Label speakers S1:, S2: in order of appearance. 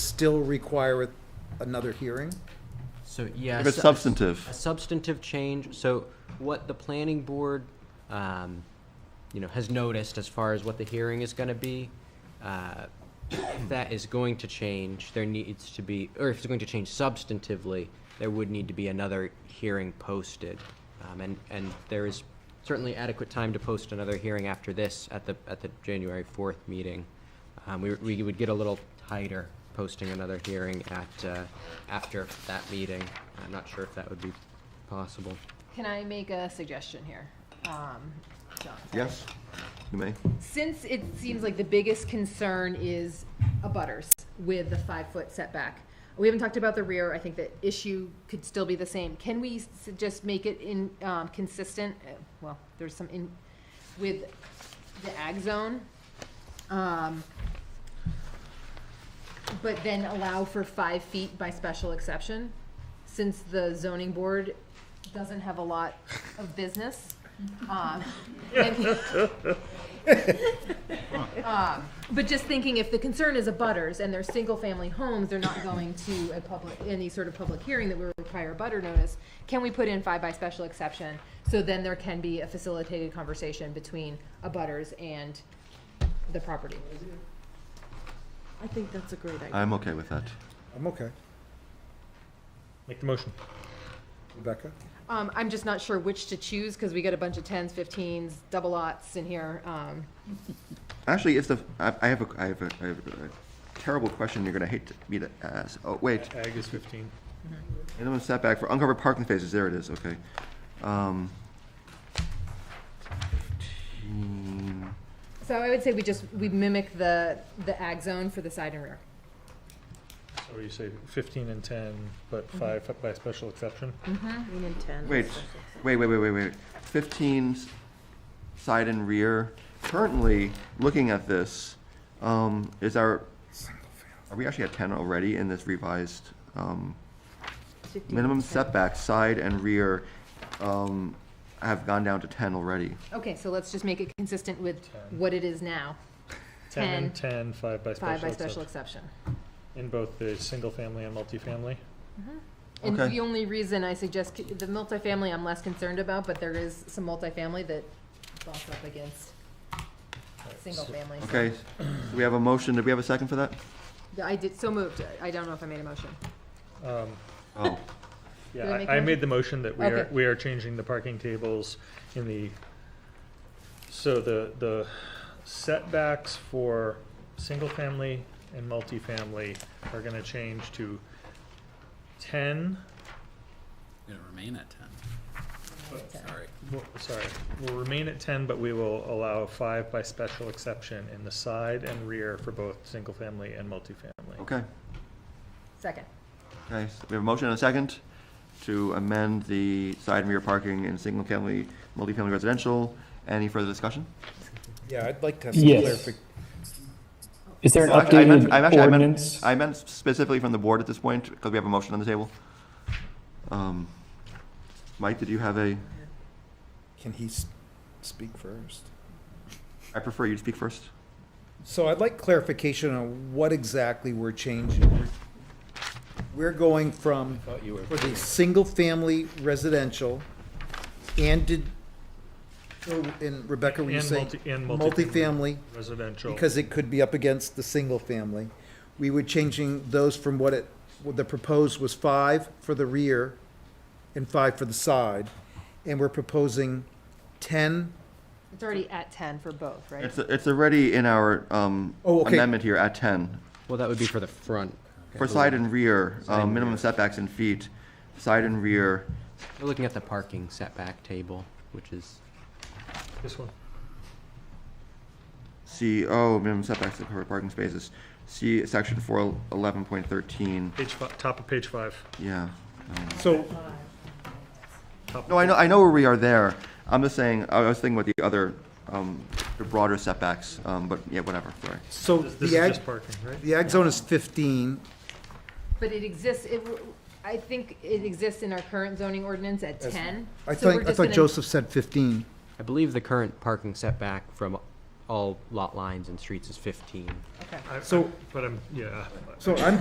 S1: still require it- another hearing?
S2: So, yes.
S3: If it's substantive.
S2: a substantive change. So what the planning board, um, you know, has noticed as far as what the hearing is going to be, uh, if that is going to change, there needs to be, or if it's going to change substantively, there would need to be another hearing posted. Um, and, and there is certainly adequate time to post another hearing after this at the, at the January fourth meeting. Um, we, we would get a little tighter posting another hearing at, uh, after that meeting. I'm not sure if that would be possible.
S4: Can I make a suggestion here? Um, Jonathan?
S3: Yes, you may.
S4: Since it seems like the biggest concern is abutters with the five-foot setback, we haven't talked about the rear, I think the issue could still be the same. Can we s- just make it in, um, consistent, uh, well, there's some in, with the ag zone? Um, But then allow for five feet by special exception, since the zoning board doesn't have a lot of business. Um, and- um, But just thinking, if the concern is abutters and they're single-family homes, they're not going to a public, any sort of public hearing that would require a butter notice, can we put in five by special exception? So then there can be a facilitated conversation between abutters and the property.
S5: I think that's a great idea.
S3: I'm okay with that.
S1: I'm okay.
S6: Make the motion.
S1: Rebecca?
S4: Um, I'm just not sure which to choose, because we got a bunch of tens, fifteens, double lots in here, um,
S3: Actually, if the, I I have a, I have a, I have a terrible question you're gonna hate to- me to ask. Oh, wait.
S6: Ag is 15.
S3: Minimum setback for uncovered parking spaces, there it is, okay. Um, 15.
S4: So I would say we just, we mimic the, the ag zone for the side and rear.
S6: So you say 15 and 10, but
S4: Mm-hmm.
S6: five by special exception?
S5: Nine and ten.
S3: Wait, wait, wait, wait, wait, wait. Fifteen s- side and rear. Currently, looking at this, um, is our, are we actually at ten already in this revised, um, minimum setback, side and rear, um, have gone down to ten already?
S4: Okay, so let's just make it consistent with what it is now,
S6: 10 and
S4: 10,
S6: 10, five by
S4: five
S6: special
S4: by special
S6: exception.
S4: exception.
S6: In both the single-family and multifamily?
S4: And
S3: Okay.
S4: the only reason I suggest, c- the multifamily I'm less concerned about, but there is some multifamily that bumps up against single family.
S3: Okay, so we have a motion, do we have a second for that?
S4: Yeah, I did, so moved, I don't know if I made a motion.
S6: Um,
S3: Oh,
S6: Yeah,
S4: Did I make
S6: I- I
S4: motion?
S6: made the motion that we are,
S4: Okay.
S6: we are changing the parking tables in the, so the, the setbacks for single-family and multifamily are gonna change to 10,
S7: Gonna remain at ten. Sorry.
S6: Well, Sorry, will remain at ten, but we will allow five by special exception in the side and rear for both single-family and multifamily.
S3: okay.
S4: Second.
S3: Okay, so we have a motion and a second to amend the side and rear parking in single-family, multifamily residential. Any further discussion?
S1: Yeah, I'd like to have
S8: some Yes. clarifi- Is there an
S3: Well, actually, I meant- I'm
S8: updated
S3: actually- I meant-
S8: ordinance?
S3: I meant specifically from the board at this point, because we have a motion on the table. Um, Mike, did you have a,
S1: Can he s- speak first?
S3: I prefer you to speak first.
S1: So I'd like clarification on what exactly we're changing. We're going from, for the single-family residential, and did, oh, and Rebecca, were you
S6: And
S1: saying?
S6: multi- and multifamily.
S1: Multifamily,
S6: Residential.
S1: because it could be up against the single-family. We were changing those from what it, what the proposed was five for the rear and five for the side. And we're proposing ten
S4: It's already at ten for both, right?
S3: It's, it's already in our um,
S1: Oh, okay.
S3: amendment here at 10.
S2: Well, that would be for the front.
S3: For side and rear,
S2: Side
S3: um,
S2: and
S3: minimum
S2: rear.
S3: setbacks in feet, side and rear,
S2: We're looking at the parking setback table, which is,
S6: This one.
S3: C, oh, minimum setbacks to cover parking spaces. See section 411.13,
S6: Page fi- top of page five.
S3: yeah. um,
S1: So,
S6: Top
S3: No, I know, I know where we are there. I'm just saying, I was thinking about the other, um, the broader setbacks, um, but yeah, whatever, sorry.
S1: so
S6: This this
S1: the
S6: is
S1: ag,
S6: just parking, right?
S1: the ag zone is fifteen,
S4: But it exists, it, w- I think it exists in our current zoning ordinance at ten.
S1: I
S4: so we're
S1: thought, I
S4: just
S1: thought
S4: gonna-
S1: Joseph said fifteen.
S2: I believe the current parking setback from all lot lines and streets is fifteen.
S4: Okay.
S6: I- I-
S1: So-
S6: But I'm, yeah.
S1: So I'm